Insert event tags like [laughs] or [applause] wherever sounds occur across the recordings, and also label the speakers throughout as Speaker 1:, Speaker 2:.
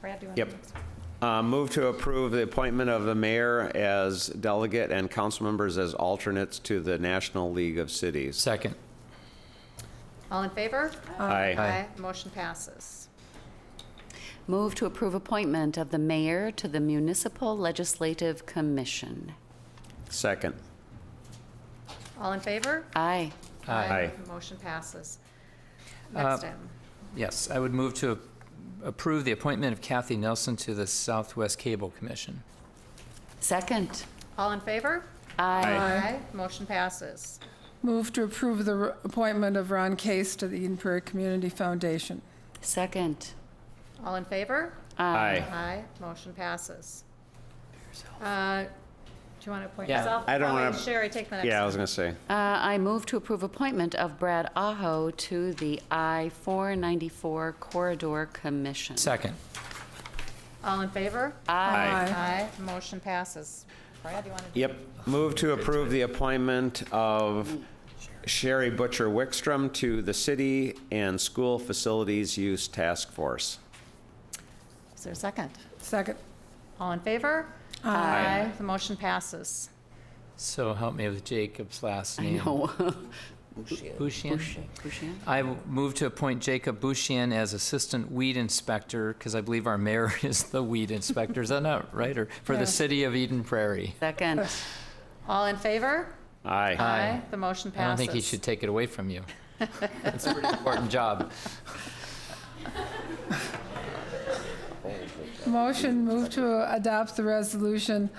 Speaker 1: Brad, do you want to?
Speaker 2: Yep. Uh, Move to approve the appointment of the mayor as delegate and council members as alternates to the National League of Cities.
Speaker 3: Second.
Speaker 1: All in favor?
Speaker 2: Aye.
Speaker 1: Motion passes.
Speaker 4: Move to approve appointment of the mayor to the Municipal Legislative Commission.
Speaker 2: Second.
Speaker 1: All in favor?
Speaker 4: Aye.
Speaker 2: Aye. Uh,
Speaker 1: Motion passes. Next item.
Speaker 3: Yes, I would move to approve the appointment of Kathy Nelson to the Southwest Cable Commission.
Speaker 4: Second.
Speaker 1: All in favor?
Speaker 4: Aye.
Speaker 1: Aye. Motion passes.
Speaker 5: Move to approve the r- appointment of Ron Case to the Eden Prairie Community Foundation.
Speaker 4: Second.
Speaker 1: All in favor?
Speaker 2: Aye.
Speaker 1: Aye. Motion passes. Uh, Do you want to appoint
Speaker 3: Yeah.
Speaker 1: yourself?
Speaker 2: I don't
Speaker 1: I'll let
Speaker 2: wanna-
Speaker 1: Sherry, take the next.
Speaker 2: Yeah, I
Speaker 1: one.
Speaker 2: was going to say.
Speaker 4: Uh, I move to approve appointment of Brad Aho to the I-494 Corridor Commission.
Speaker 3: Second.
Speaker 1: All in favor?
Speaker 4: Aye.
Speaker 1: Aye. Motion passes. Brad, you want to?
Speaker 2: Yep. Move to approve the appointment of Sherry Butcher Wickstrom to the City and School Facilities Use Task Force.
Speaker 1: Is there a second?
Speaker 5: Second.
Speaker 1: All in favor? Aye. The motion passes.
Speaker 3: So help me with Jacob's last name.
Speaker 4: No. [laughs]
Speaker 3: Bushian?
Speaker 4: Bushian?
Speaker 3: I w- move to appoint Jacob Bushian as Assistant Weed Inspector, because I believe our mayor [laughs] is the weed inspector, is that not right? Or for the city of Eden Prairie.
Speaker 4: Second.
Speaker 1: All in favor?
Speaker 2: Aye.
Speaker 1: The motion passes.
Speaker 3: I don't think he should take it away
Speaker 1: [laughs]
Speaker 3: from you. It's a pretty important job.
Speaker 5: Motion, move to adopt the resolution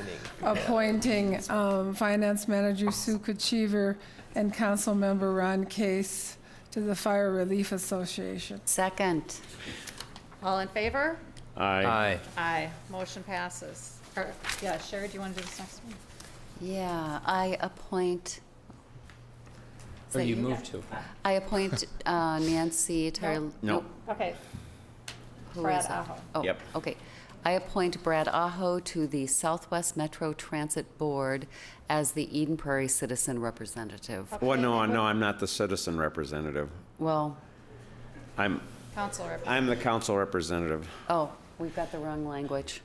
Speaker 5: appointing um, Finance Manager Sue Kuchiver and Councilmember Ron Case to the Fire Relief Association.
Speaker 4: Second.
Speaker 1: All in favor?
Speaker 2: Aye.
Speaker 3: Aye.
Speaker 1: Aye. Motion passes. Or- Yeah, Sherry, do you want to do this next one?
Speaker 4: Yeah, I appoint,
Speaker 3: Or
Speaker 4: that
Speaker 3: Oh, you
Speaker 4: you?
Speaker 3: move to.
Speaker 4: I appoint uh, Nancy Tar...
Speaker 2: No.
Speaker 1: Okay.
Speaker 4: who
Speaker 1: Brad
Speaker 4: is it?
Speaker 1: Aho.
Speaker 4: Oh,
Speaker 2: Yep.
Speaker 4: okay. I appoint Brad Aho to the Southwest Metro Transit Board as the Eden Prairie Citizen Representative.
Speaker 2: Well, no, no, I'm not the citizen representative.
Speaker 4: Well,
Speaker 2: I'm,
Speaker 1: Council rep.
Speaker 2: I'm the council representative.
Speaker 4: oh, we've got the wrong language.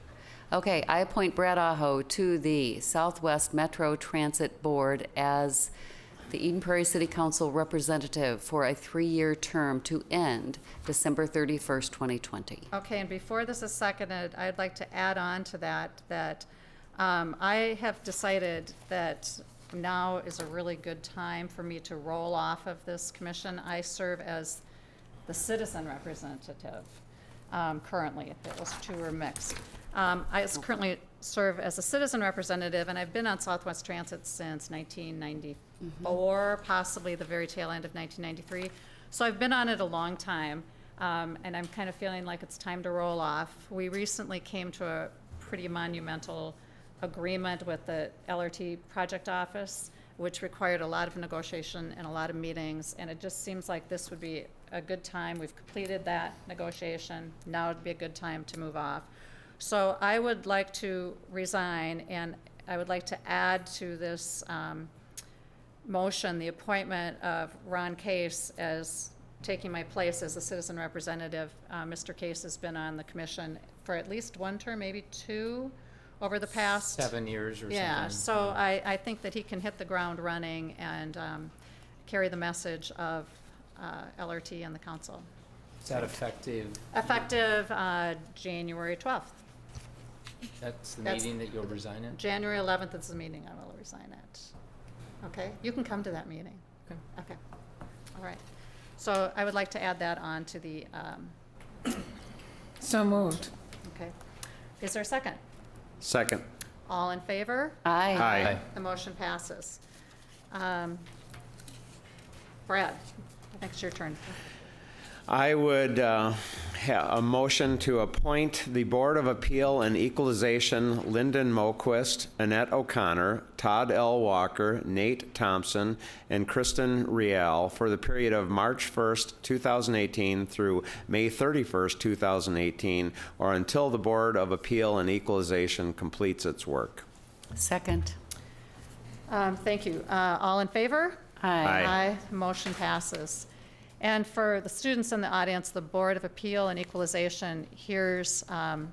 Speaker 4: Okay, I appoint Brad Aho to the Southwest Metro Transit Board as the Eden Prairie City Council Representative for a three-year term to end December 31st, 2020.
Speaker 1: Okay, and before this is seconded, I'd like to add on to that, that um, I have decided that now is a really good time for me to roll off of this commission. I serve as the citizen representative um, currently. Those two are mixed. Um, I s- currently serve as a citizen representative, and I've been on Southwest Transit since 1994, possibly the very tail end of 1993. So I've been on it a long time, um, and I'm kind of feeling like it's time to roll off. We recently came to a pretty monumental agreement with the LRT project office, which required a lot of negotiation and a lot of meetings, and it just seems like this would be a good time. We've completed that negotiation. Now would be a good time to move off. So I would like to resign, and I would like to add to this um, motion the appointment of Ron Case as taking my place as a citizen representative. Uh, Mr. Case has been on the commission for at least one term, maybe two, over the past.
Speaker 3: Seven years or something.
Speaker 1: Yeah, so I, I think that he can hit the ground running and um, carry the message of uh, LRT and the council.
Speaker 3: Is that effective?
Speaker 1: Effective uh, January 12th.
Speaker 3: That's the
Speaker 1: That's-
Speaker 3: meeting that you'll resign in?
Speaker 1: January 11th is the meeting I will resign at. Okay, you can come to that meeting.
Speaker 3: Okay.
Speaker 1: Okay, all right. So I would like to add that on to the, um,
Speaker 5: So moved.
Speaker 1: okay. Is there a second?
Speaker 2: Second.
Speaker 1: All in favor?
Speaker 4: Aye.
Speaker 2: Aye.
Speaker 3: Aye.
Speaker 1: The motion passes. Um, Brad, I think it's your turn.
Speaker 2: I would uh, ha a motion to appoint the Board of Appeal and Equalization Lyndon Moquist, Annette O'Connor, Todd L. Walker, Nate Thompson, and Kristen Rial for the period of March 1st, 2018 through May 31st, 2018, or until the Board of Appeal and Equalization completes its work.
Speaker 4: Second.
Speaker 1: Um, Thank you. Uh, All in favor?
Speaker 2: Aye.
Speaker 1: Motion passes. And for the students in the audience, the Board of Appeal and Equalization hears um,